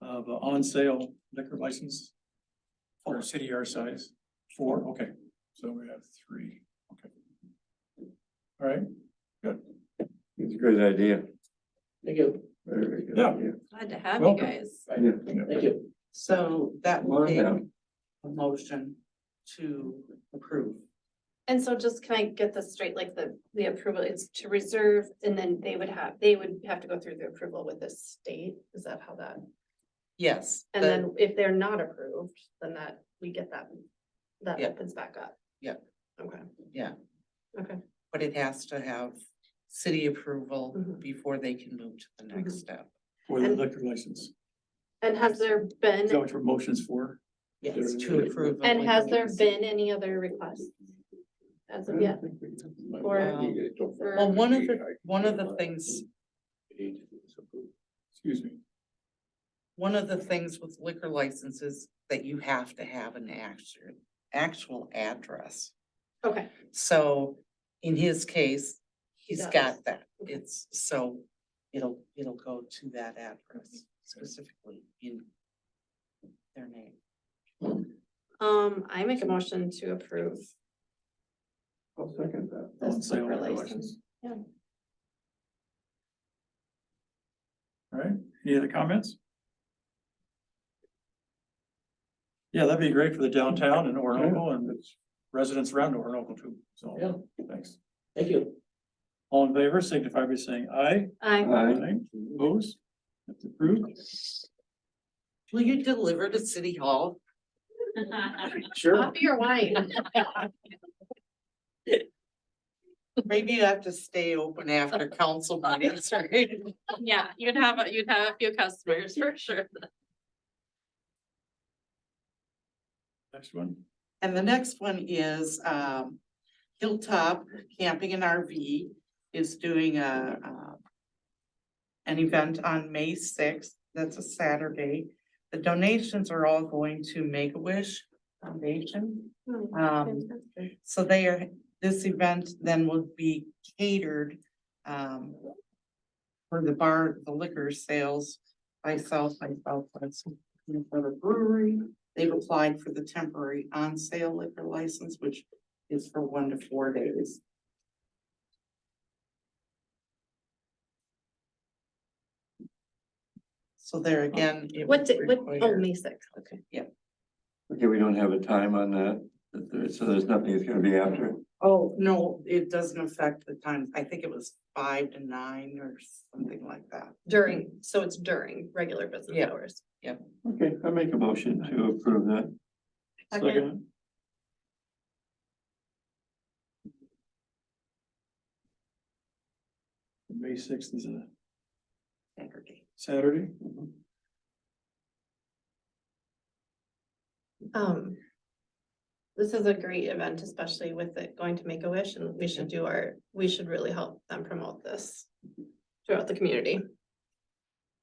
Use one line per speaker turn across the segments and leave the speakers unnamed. of a on-sale liquor license for a city our size? Four, okay, so we have three, okay. All right,
It's a good idea.
Thank you,
Very good
Yeah.
idea.
Glad to have you
Welcome.
guys.
thank you.
So that
Come on
will be a
down.
motion to approve.
And so just can I get this straight, like the, the approval is to reserve and then they would have, they would have to go through the approval with the state? Is that how that?
Yes.
And
the-
then if they're not approved, then that, we get that, that
Yeah.
opens back up.
Yeah.
Okay.
Yeah.
Okay.
But it has to have city approval
Mhm.
before they can move to the
Mm-hmm.
next step.
for the
And-
liquor license,
And has there
is that
been,
what your motion's for?
Yes, to approve.
and has there been any other requests? As of yet? Or-
Well, one of the, one of the things,
Excuse me,
one of the things with liquor licenses that you have to have an actual, actual address. Mm.
Okay,
So in his case, he's
does.
got that.
Okay.
It's so it'll, it'll go to that address specifically in their name.
um, I make a motion to approve
I'll second that.
this
On-sale
liquor
liquor
license.
license. all right, any other comments? Yeah, that'd be great for the downtown and Orinoco and its residents around Orinoco too, so, thanks.
thank you.
All in favor, signify by saying aye.
I,
Aye.
Opposed? That's approved.
Will you deliver to City Hall? Uh,
Sure.
coffee or wine?
Maybe you have to stay open after council meetings, right?
Yeah, you'd have, a- you'd have a few customers for sure.
Next one.
And the next one is, um, Hilltop Camping and RV is doing a, uh, an event on May sixth, that's a Saturday. The donations are all going to Make-A-Wish Foundation.
Hmm,
Um, so they are, this event then will be catered, um, for the bar, the liquor sales by South by Southwest. and For the brewery, they've applied for the temporary on sale liquor license, which is for one to four days. So there again. it
What,
would
di- what, oh,
require-
May sixth, okay.
Okay, we don't have a time on that, but there- so there's nothing that's gonna be after.
Oh, no, it doesn't affect the times. I think it was five to nine or something like that.
During, so it's during regular business
Yeah.
hours.
Okay, I make a motion to approve that.
Second. May sixth is a
Saturday.
Saturday.
Um, this is a great event, especially with it going to Make-A-Wish and we should do our, we should really help them promote this throughout the community.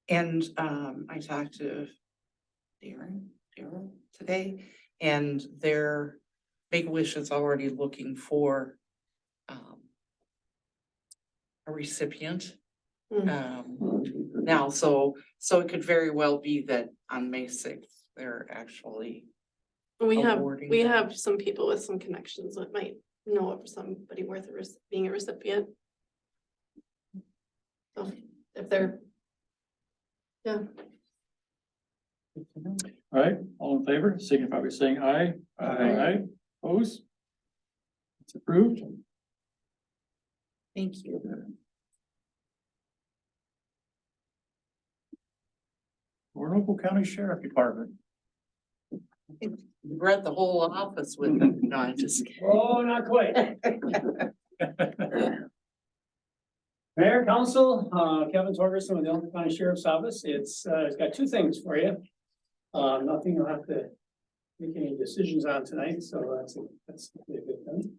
And um, I talked to Darren, Darren today, and their Big Wish is already looking for um a recipient.
Mm.
Um, now, so, so it could very well be that on May sixth, they're actually,
We have,
Awarding
we
them.
have some people with some connections that might know of somebody worth a rec- being a recipient. So if they're,
All right, all in favor, signify by saying aye. Aye. Opposed? It's approved.
thank you.
Orinoco County Sheriff Department.
You read the whole office with them. No, I'm just kidding.
Oh, not quite. Mayor, Council, uh, Kevin Torgerson with the Elton County Sheriff's Office. It's, uh, it's got two things for you. Uh, nothing you'll have to make any decisions on tonight, so that's, that's a good thing.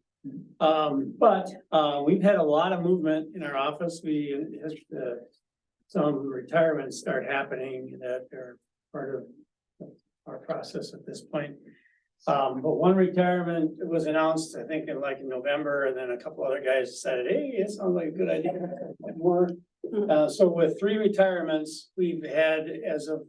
Um, but, uh, we've had a lot of movement in our office. We, uh, some retirements start happening that are part of our process at this point. Um, but one retirement was announced, I think in like in November, and then a couple other guys decided, hey, it sounds like a good idea. More. Uh, so with three retirements, we've had as of